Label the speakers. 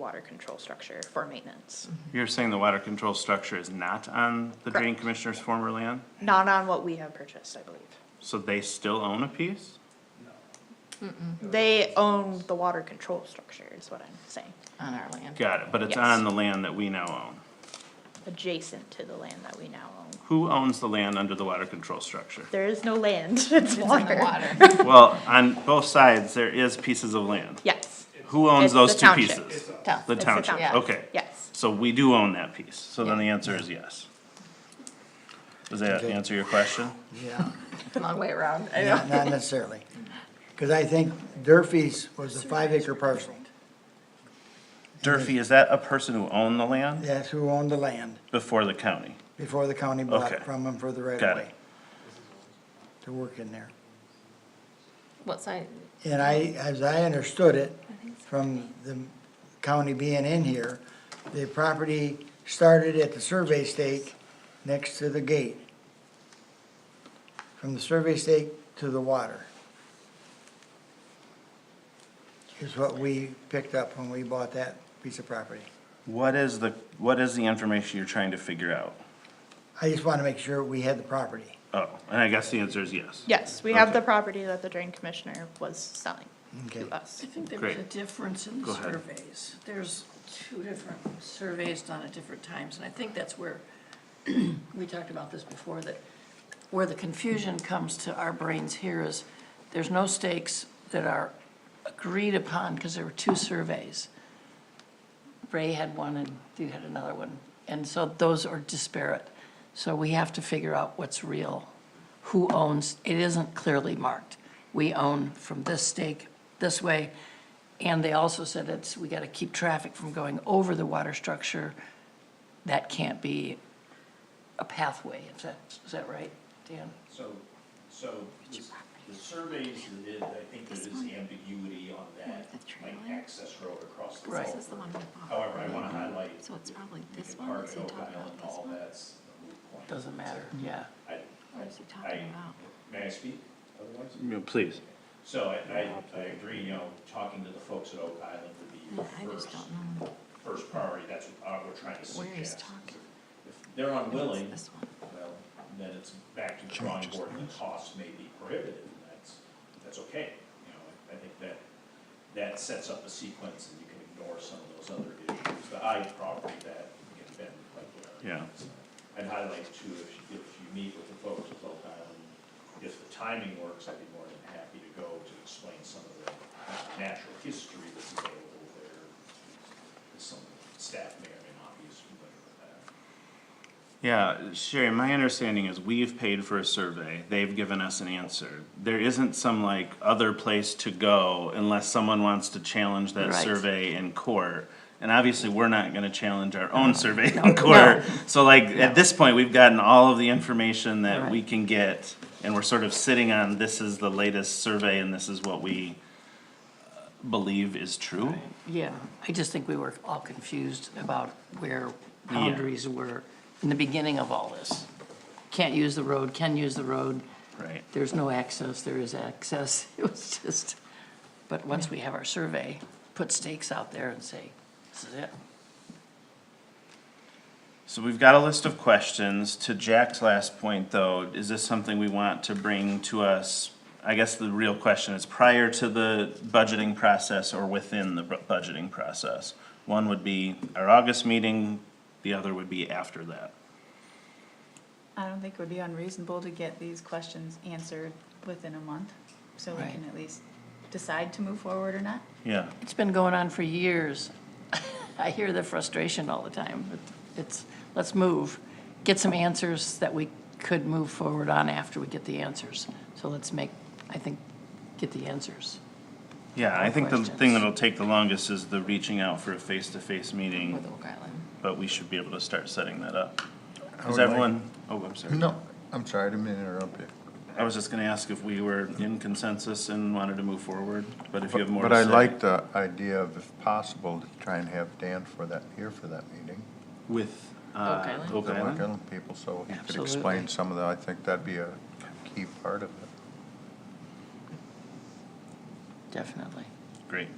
Speaker 1: water control structure for maintenance.
Speaker 2: You're saying the water control structure is not on the drain
Speaker 1: Correct.
Speaker 2: commissioner's former land?
Speaker 1: Not on what we have purchased, I believe.
Speaker 2: So they still own a piece?
Speaker 1: They own the water control structure is what I'm saying,
Speaker 3: on our land.
Speaker 2: Got it, but it's
Speaker 1: Yes.
Speaker 2: on the land that we now own.
Speaker 1: adjacent to the land that we now own.
Speaker 2: Who owns the land under the water control structure?
Speaker 1: There is no land, it's water.
Speaker 3: Water.
Speaker 2: Well, on both sides, there is pieces of land.
Speaker 1: Yes.
Speaker 2: Who owns
Speaker 1: It's
Speaker 2: those
Speaker 1: the
Speaker 2: two
Speaker 1: township.
Speaker 2: pieces?
Speaker 3: Town.
Speaker 2: The
Speaker 1: It's the
Speaker 2: township,
Speaker 1: township.
Speaker 2: okay.
Speaker 1: Yes.
Speaker 2: So we do own that piece, so then the answer is yes. Does that answer your question?
Speaker 4: Yeah,
Speaker 3: Long way around. I know.
Speaker 4: not not necessarily. Because I think Durfee's was a five acre parcel.
Speaker 2: Durfee, is that a person who owned the land
Speaker 4: That's who owned the land
Speaker 2: before the county?
Speaker 4: before the county bought
Speaker 2: Okay.
Speaker 4: it from them for the right
Speaker 2: Got
Speaker 4: of
Speaker 2: it.
Speaker 4: way to work in there.
Speaker 3: What side?
Speaker 4: And I, as I understood it, from the county being in here, the property started at the survey stake next to the gate. From the survey stake to the water. Is what we picked up when we bought that piece of property.
Speaker 2: What is the, what is the information you're trying to figure out?
Speaker 4: I just want to make sure we had the property.
Speaker 2: Oh, and I guess the answer is yes.
Speaker 1: Yes, we have the
Speaker 2: Okay.
Speaker 1: property that the drain commissioner was selling
Speaker 4: Okay.
Speaker 1: to us.
Speaker 5: I think there was
Speaker 2: Great.
Speaker 5: a difference in
Speaker 2: Go
Speaker 5: the
Speaker 2: ahead.
Speaker 5: surveys. There's two different surveys done at different times, and I think that's where, we talked about this before, that where the confusion comes to our brains here is, there's no stakes that are agreed upon, because there were two surveys. Ray had one and you had another one, and so those are disparate. So we have to figure out what's real, who owns, it isn't clearly marked. We own from this stake, this way, and they also said it's, we gotta keep traffic from going over the water structure. That can't be a pathway, is that, is that right, Dan?
Speaker 6: So, so this- the surveys that did, I think there is ambiguity on that, like access road across the
Speaker 5: Right.
Speaker 6: road.
Speaker 7: This is the one we bought.
Speaker 6: However, I want to highlight,
Speaker 7: So it's probably
Speaker 6: you
Speaker 7: this
Speaker 6: can
Speaker 7: one,
Speaker 6: park
Speaker 7: is
Speaker 6: at
Speaker 7: he
Speaker 6: Oak
Speaker 7: talking
Speaker 6: Island
Speaker 7: about
Speaker 6: and
Speaker 7: this
Speaker 6: all
Speaker 7: one?
Speaker 6: that's a moot point.
Speaker 5: Doesn't matter, yeah.
Speaker 6: I,
Speaker 7: What is he
Speaker 6: I,
Speaker 7: talking about?
Speaker 6: may I speak otherwise?
Speaker 2: Yeah, Please.
Speaker 6: So I, I, I agree, you know, talking to the folks at Oak Island would be
Speaker 7: I
Speaker 6: your
Speaker 7: just
Speaker 6: first,
Speaker 7: don't know
Speaker 6: first priority, that's what uh, we're trying to
Speaker 7: where he's
Speaker 6: suggest.
Speaker 7: talking.
Speaker 6: If they're unwilling,
Speaker 7: This one.
Speaker 6: well, then it's back to the drawing board, and the cost may be prohibitive, and that's, that's okay. You know, I- I think that, that sets up a sequence, and you can ignore some of those other issues, the I property that, again, Ben, like,
Speaker 2: Yeah.
Speaker 6: uh, I'd highlight too, if, you- if you meet with the folks at Oak Island, if the timing works, I'd be more than happy to go to explain some of the natural history that's available there. Some staff may or may not be as familiar with that.
Speaker 2: Yeah, Sherry, my understanding is we've paid for a survey, they've given us an answer. There isn't some like other place to go unless someone wants to challenge that
Speaker 5: Right.
Speaker 2: survey in court. And obviously, we're not gonna challenge our own survey in court. So like, at this point, we've gotten all of the information that we
Speaker 5: Right.
Speaker 2: can get, and we're sort of sitting on, this is the latest survey and this is what we uh, believe is true.
Speaker 5: Yeah, I just think we were all confused about where boundaries were in the beginning of all this. Can't use the road, can use the road.
Speaker 2: Right.
Speaker 5: There's no access, there is access. It was just, but once we have our survey, put stakes out there and say, this is it.
Speaker 2: So we've got a list of questions. To Jack's last point, though, is this something we want to bring to us? I guess the real question is prior to the budgeting process or within the bu- budgeting process? One would be our August meeting, the other would be after that.
Speaker 8: I don't think it would be unreasonable to get these questions answered within a month, so we
Speaker 5: Right.
Speaker 8: can at least decide to move forward or not.
Speaker 2: Yeah,
Speaker 5: It's been going on for years. I hear the frustration all the time. but It's, let's move, get some answers that we could move forward on after we get the answers. So let's make, I think, get the answers.
Speaker 2: yeah, I think the thing
Speaker 5: Questions.
Speaker 2: that'll take the longest is the reaching out for a face-to-face meeting,
Speaker 3: With Oak Island.
Speaker 2: but we should be able to start setting that up. Is
Speaker 9: would like-
Speaker 2: everyone, oh, I'm sorry.
Speaker 9: No, I'm sorry, I didn't mean to interrupt you.
Speaker 2: I was just gonna ask if we were in consensus and wanted to move forward, but if you have more to
Speaker 9: But I
Speaker 2: say-
Speaker 9: like the idea of, if possible, to try and have Dan for that, here for that meeting.
Speaker 2: With, uh,
Speaker 5: Oak Island?
Speaker 2: Oak
Speaker 9: The Rock
Speaker 2: Island?
Speaker 9: Island people, so he could
Speaker 5: Absolutely.
Speaker 9: explain some of that. I think that'd be a key part of it.
Speaker 5: Definitely.
Speaker 2: Great.